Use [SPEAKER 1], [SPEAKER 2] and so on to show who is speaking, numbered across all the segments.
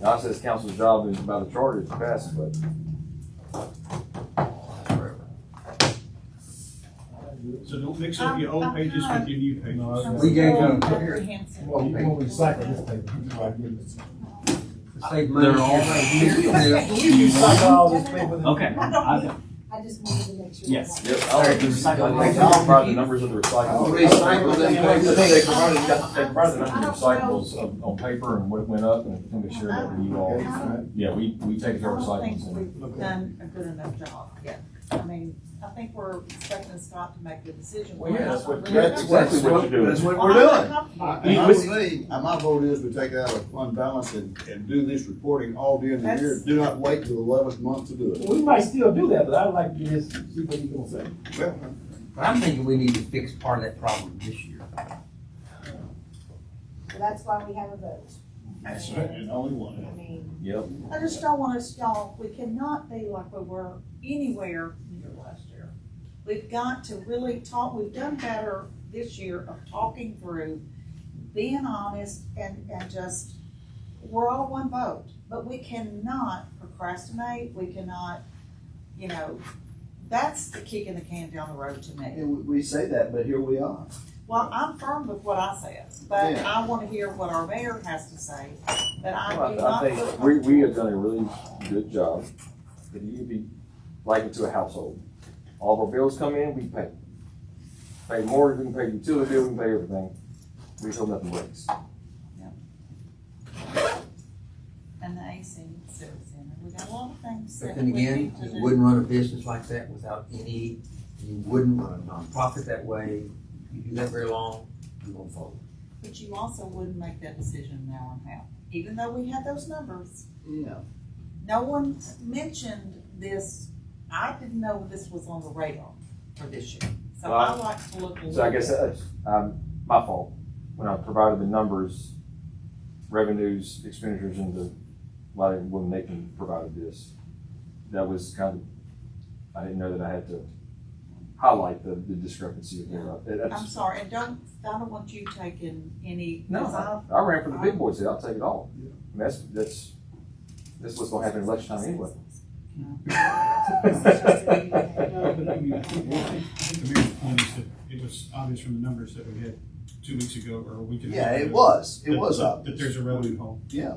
[SPEAKER 1] Now, I says council's job is by the charter is to pass, it, but
[SPEAKER 2] So don't mix
[SPEAKER 3] Um,
[SPEAKER 2] up your old pages with your new pages.
[SPEAKER 4] We gave
[SPEAKER 5] More
[SPEAKER 4] them,
[SPEAKER 5] comprehensive.
[SPEAKER 6] Well, you won't recycle this paper. You might give it.
[SPEAKER 4] save money. Yeah.
[SPEAKER 6] You recycle all this paper. that-
[SPEAKER 7] Okay, I,
[SPEAKER 5] I just wanted to make sure.
[SPEAKER 7] Yes.
[SPEAKER 1] yep, I'll, I think I'll provide the numbers of the recyclables.
[SPEAKER 4] Recycle them papers.
[SPEAKER 1] They provided, they provided the number of recyclables on, on paper and what it went up, and I think they shared that with you all.
[SPEAKER 6] Okay.
[SPEAKER 1] Yeah, we, we
[SPEAKER 5] I
[SPEAKER 1] take our
[SPEAKER 5] don't think
[SPEAKER 1] recyclables. and-
[SPEAKER 5] we've done a good enough job yet. I mean, I think we're expecting Scott to make the decision.
[SPEAKER 1] Well, yeah, that's what-
[SPEAKER 5] We're not
[SPEAKER 1] that's
[SPEAKER 5] really-
[SPEAKER 1] exactly what you're doing.
[SPEAKER 4] That's what
[SPEAKER 5] Well,
[SPEAKER 4] we're
[SPEAKER 5] I'm not
[SPEAKER 4] doing.
[SPEAKER 5] comfortable.
[SPEAKER 3] I- And I believe, and my vote is we take it out of fund balance and, and do this reporting all during the year.
[SPEAKER 5] That's-
[SPEAKER 3] Do not wait till the eleventh month to do it.
[SPEAKER 6] We might still do that, but I'd like to just see what you gonna say.
[SPEAKER 4] But I'm thinking we need to fix part of that problem this year.
[SPEAKER 5] Well, That's why we have a vote.
[SPEAKER 3] That's
[SPEAKER 2] And only one.
[SPEAKER 5] I mean,
[SPEAKER 1] Yep,
[SPEAKER 5] I just don't want us, y'all, we cannot be like we were anywhere near last year. We've got to really talk, we've done better this year of talking through, being honest and, and just, we're all one vote. But we cannot procrastinate, we cannot, you know, that's the kick in the can down the road to me.
[SPEAKER 3] And we, we say that, but here we are.
[SPEAKER 5] Well, I'm firm with what I said, but
[SPEAKER 3] Yeah.
[SPEAKER 5] I wanna hear what our mayor has to say, but I do
[SPEAKER 1] Well, I
[SPEAKER 5] not
[SPEAKER 1] I
[SPEAKER 5] feel
[SPEAKER 1] think we, we
[SPEAKER 5] comfortable.
[SPEAKER 1] have done a really good job, but you'd be like it to a household. All of our bills come in, we pay. Pay mortgage, we can pay utility bill, we can pay everything, we hope nothing breaks.
[SPEAKER 5] and the AC Civic Center. We got a lot of things
[SPEAKER 4] But
[SPEAKER 5] that
[SPEAKER 4] then
[SPEAKER 5] we
[SPEAKER 4] again,
[SPEAKER 5] need to
[SPEAKER 4] you
[SPEAKER 5] do.
[SPEAKER 4] wouldn't run a business like that without any, you wouldn't run a nonprofit that way. You do that very long, you won't fold.
[SPEAKER 5] But you also wouldn't make that decision now and now, even though we had those numbers.
[SPEAKER 3] Yeah.
[SPEAKER 5] No one mentioned this, I didn't know this was on the radar for this year. So I
[SPEAKER 1] Well,
[SPEAKER 5] like to look a
[SPEAKER 1] So I
[SPEAKER 5] little
[SPEAKER 1] guess
[SPEAKER 5] bit.
[SPEAKER 1] that's, um, my fault, when I provided the numbers, revenues, expenditures, and the, like, when Nathan provided this, that was kind of, I didn't know that I had to highlight the, the discrepancy of there. That's-
[SPEAKER 5] I'm sorry, and don't, I don't want you taking any,
[SPEAKER 1] No,
[SPEAKER 5] because I,
[SPEAKER 1] I ran for the big boys, here. I'll take it all. I mean, That's, that's, that's what's gonna happen in election time anyway.
[SPEAKER 2] No, but I mean, I think I think the mayor's point is that it was obvious from the numbers that we had two weeks ago or a week ago.
[SPEAKER 3] Yeah, it was. It
[SPEAKER 2] that-
[SPEAKER 3] was
[SPEAKER 2] that-
[SPEAKER 3] obvious.
[SPEAKER 2] That there's a revenue hole.
[SPEAKER 3] Yeah,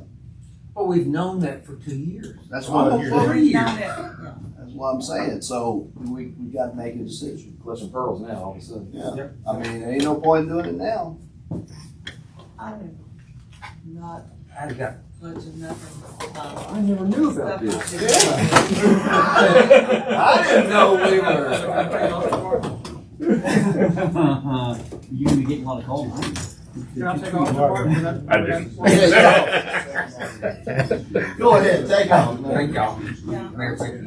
[SPEAKER 4] But we've known that for two years.
[SPEAKER 3] that's
[SPEAKER 2] Well,
[SPEAKER 3] what,
[SPEAKER 4] Almost
[SPEAKER 3] I'm-
[SPEAKER 2] here.
[SPEAKER 4] three years.
[SPEAKER 5] not that- yeah.
[SPEAKER 3] that's what I'm saying. So we, we gotta make a decision.
[SPEAKER 1] Clutching pearls now, all of a sudden.
[SPEAKER 3] Yeah. I mean, there ain't no point in doing it now.
[SPEAKER 5] I'm not
[SPEAKER 4] I got
[SPEAKER 5] budging nothing. but
[SPEAKER 1] I never knew about
[SPEAKER 5] stuff
[SPEAKER 1] this.
[SPEAKER 5] like this.
[SPEAKER 4] I didn't know we were.
[SPEAKER 7] you're gonna be getting a lot of calls. aren't you?
[SPEAKER 2] Can I take off the part for that?
[SPEAKER 8] I just-
[SPEAKER 3] Go ahead, take off. man.
[SPEAKER 4] Thank y'all.
[SPEAKER 5] Yeah.
[SPEAKER 4] Mayor, thank you.